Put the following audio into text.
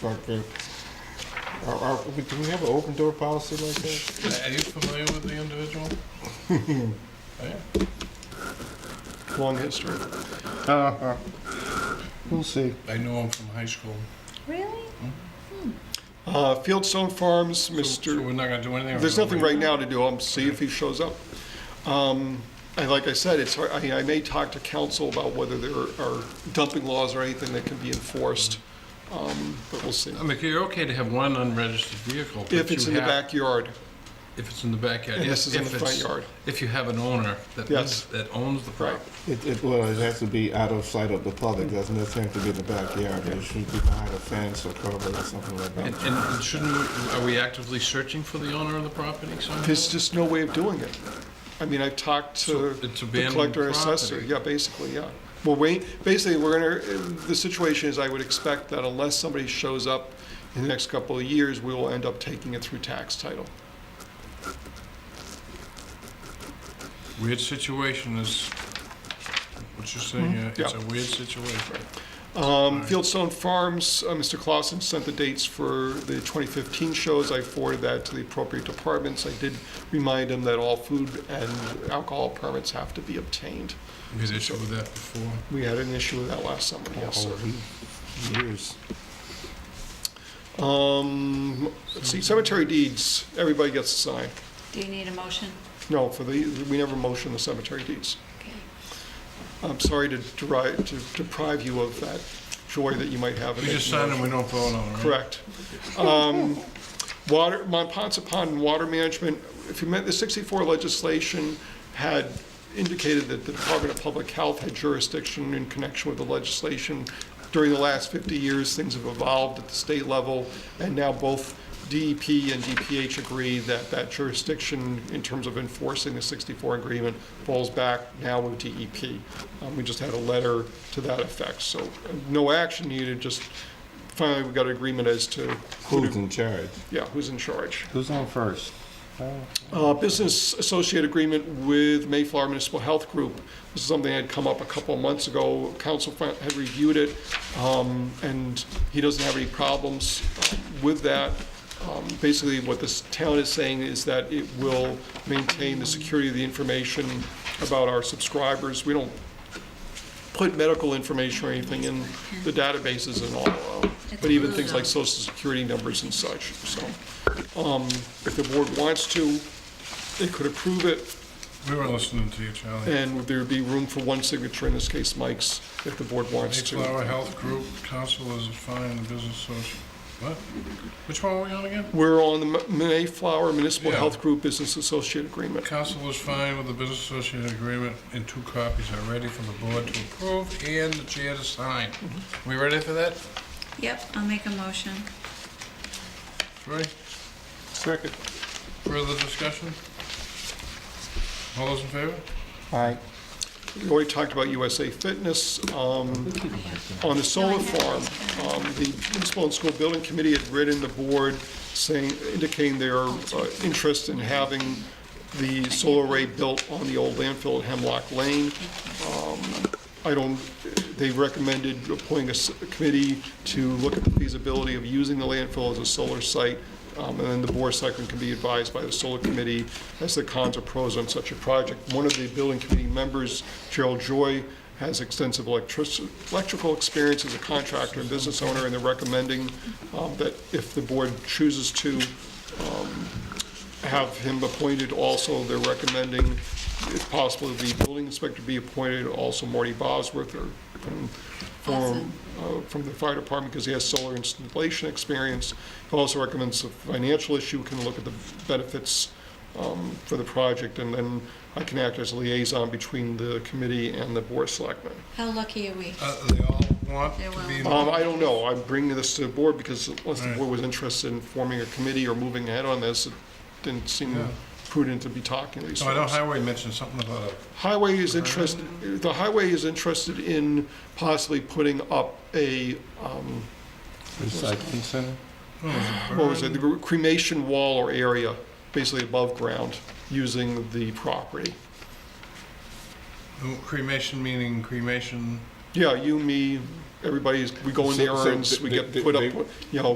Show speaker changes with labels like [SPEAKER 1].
[SPEAKER 1] Fuck that. Are- are- Do we have an open door policy like that?
[SPEAKER 2] Are you familiar with the individual? Yeah.
[SPEAKER 1] Long history. Uh-huh. We'll see.
[SPEAKER 2] I knew him from high school.
[SPEAKER 3] Really?
[SPEAKER 4] Uh, Fieldstone Farms,
[SPEAKER 2] So
[SPEAKER 4] Mr.,
[SPEAKER 2] we're not gonna do anything?
[SPEAKER 4] there's nothing right now to do, I'm see if he shows up. Um, And like I said, it's, hard- I I may talk to council about whether there are dumping laws or anything that can be enforced, um, but we'll see.
[SPEAKER 2] I mean, you're okay to have one unregistered vehicle. but
[SPEAKER 4] If it's
[SPEAKER 2] you
[SPEAKER 4] in the
[SPEAKER 2] have-
[SPEAKER 4] backyard,
[SPEAKER 2] If it's in the backyard.
[SPEAKER 4] And this
[SPEAKER 2] if-
[SPEAKER 4] is in
[SPEAKER 2] if
[SPEAKER 4] the front
[SPEAKER 2] it's-
[SPEAKER 4] yard.
[SPEAKER 2] If you have an owner that
[SPEAKER 4] Yes.
[SPEAKER 2] lives, that owns the
[SPEAKER 4] right.
[SPEAKER 2] property.
[SPEAKER 1] It, it, well, it has to be out of sight of the public, doesn't necessarily have to be in the backyard, it should be behind a fence or cover or something like
[SPEAKER 2] And,
[SPEAKER 1] that.
[SPEAKER 2] and shouldn't, we- are we actively searching for the owner of the property somehow?
[SPEAKER 4] There's just no way of doing it. I mean, I've talked
[SPEAKER 2] So
[SPEAKER 4] to
[SPEAKER 2] it's
[SPEAKER 4] the
[SPEAKER 2] abandoned
[SPEAKER 4] collector assessor.
[SPEAKER 2] property.
[SPEAKER 4] Yeah, basically, yeah. Well, wait, basically, we're gonna, the situation is I would expect that unless somebody shows up in the next couple of years, we will end up taking it through tax title.
[SPEAKER 2] Weird situation is, what you're saying, yeah, it's
[SPEAKER 4] Yeah.
[SPEAKER 2] a weird situation.
[SPEAKER 4] Um, Fieldstone Farms, uh, Mr. Clausen sent the dates for the 2015 shows. I forwarded that to the appropriate departments. I did remind him that all food and alcohol permits have to be obtained.
[SPEAKER 2] We had issue with that before.
[SPEAKER 4] We had an issue with that last summer, yes, sir.
[SPEAKER 1] Oh, Years.
[SPEAKER 4] Um, let's see, cemetery deeds, everybody gets to sign.
[SPEAKER 3] Do you need a motion?
[SPEAKER 4] No, for the, we never motion the cemetery deeds.
[SPEAKER 3] Okay.
[SPEAKER 4] I'm sorry to derive, to deprive you of that joy that you might have. in
[SPEAKER 2] We just
[SPEAKER 4] making
[SPEAKER 2] signed
[SPEAKER 4] motions.
[SPEAKER 2] and we don't vote on it, right?
[SPEAKER 4] Correct. Um, Water, Mont Pond Water Management, if you meant, the 64 legislation had indicated that the Department of Public Health had jurisdiction in connection with the legislation. During the last 50 years, things have evolved at the state level, and now both DEP and DPH agree that that jurisdiction, in terms of enforcing the 64 agreement, falls back now with DEP. Um, We just had a letter to that effect, so uh, no action needed, just finally we got agreement as to who
[SPEAKER 1] Who's
[SPEAKER 4] to,
[SPEAKER 1] in charge?
[SPEAKER 4] yeah, who's in charge.
[SPEAKER 1] Who's on first?
[SPEAKER 4] Uh, business associate agreement with Mayflower Municipal Health Group. This is something that had come up a couple of months ago. Council fin- had reviewed it, um, and he doesn't have any problems uh, with that. Um, basically, what this town is saying is that it will maintain the security of the information about our subscribers. We don't put medical information or anything in the databases and all, uh, but even things like social security numbers and such, so. um, If the board wants to, they could approve it,
[SPEAKER 2] We were listening to you, Charlie.
[SPEAKER 4] and there'd be room for one signature, in this case Mike's, if the board wants to.
[SPEAKER 2] Mayflower Health Group, council is fine, the business social, what? Which one are we on again?
[SPEAKER 4] We're on the M- Mayflower Municipal
[SPEAKER 2] Yeah.
[SPEAKER 4] Health Group Business Associate Agreement.
[SPEAKER 2] Council is fine with the business associate agreement, and two copies are ready for the board to approve and the chair to sign.
[SPEAKER 4] Mm-hmm.
[SPEAKER 2] We ready for that,
[SPEAKER 3] Yep, I'll make a motion.
[SPEAKER 2] Troy?
[SPEAKER 4] Second.
[SPEAKER 2] Further discussion? All those in favor?
[SPEAKER 1] Aye.
[SPEAKER 4] We already talked about USA Fitness. um, On the solar farm, um, the Municipal and School Building Committee had written the board saying, indicating their uh, interest in having the solar array built on the old landfill at Hemlock Lane. I don't, they recommended appointing a s- a committee to look at the feasibility of using the landfill as a solar site, um, and then the board selectmen can be advised by the solar committee as the cons or pros on such a project. One of the building committee members, Gerald Joy, has extensive electric- electrical experience as a contractor and business owner, and they're recommending um, that if the board chooses to, have him appointed also, they're recommending, if possible, the building inspector be appointed, also Marty Bosworth, or from, from,
[SPEAKER 3] Awesome.
[SPEAKER 4] uh, from the fire department, because he has solar installation experience. He Also recommends a financial issue, can look at the benefits um, for the project, and then I can act as a liaison between the committee and the board of selectmen.
[SPEAKER 3] How lucky are we?
[SPEAKER 2] Uh, they all want
[SPEAKER 3] They
[SPEAKER 2] to be,
[SPEAKER 3] will.
[SPEAKER 4] Um, I don't know, I'm bringing this to the board, because unless the board was interested in forming a committee or moving ahead on this, it didn't seem
[SPEAKER 2] Yeah.
[SPEAKER 4] prudent to be talking to these
[SPEAKER 2] so Oh, I know
[SPEAKER 4] folks.
[SPEAKER 2] Highway mentioned something about a
[SPEAKER 4] Highway is interested, the highway is interested in possibly putting up a, um,
[SPEAKER 1] Recycling center?
[SPEAKER 4] what was it, the cremation wall or area, basically above ground, using the property.
[SPEAKER 2] cremation, meaning cremation,
[SPEAKER 4] Yeah, you, me, everybody's, we go in the
[SPEAKER 1] So- so
[SPEAKER 4] errands, we
[SPEAKER 1] they-
[SPEAKER 4] get
[SPEAKER 1] they-
[SPEAKER 4] put up,
[SPEAKER 1] they-
[SPEAKER 4] you know,